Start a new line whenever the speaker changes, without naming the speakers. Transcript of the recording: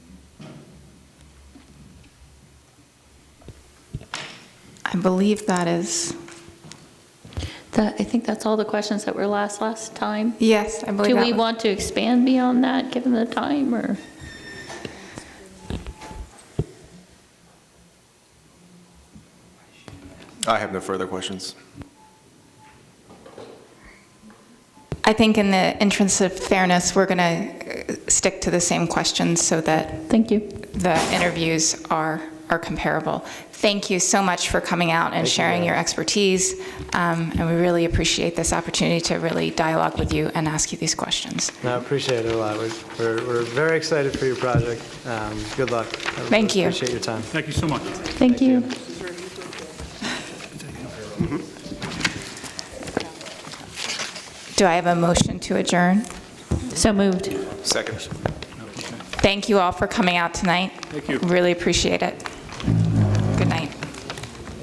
I believe that is,
That, I think that's all the questions that were last, last time.
yes, I believe
Do
that
we
was-
want to expand beyond that, given the time, or?
I have no further questions.
I think in the interest of fairness, we're going to stick to the same questions so that
Thank you.
the interviews are, are comparable. Thank you so much for coming out and sharing your expertise, um, and we really appreciate this opportunity to really dialogue with you and ask you these questions.
No, I appreciate it a lot. We're- We're, we're very excited for your project. Um, Good luck. I
Thank you.
Appreciate your time.
Thank you so much.
Thank you.
Do I have a motion to adjourn?
So moved.
Second.
Thank you all for coming out tonight.
Thank you.
Really appreciate it.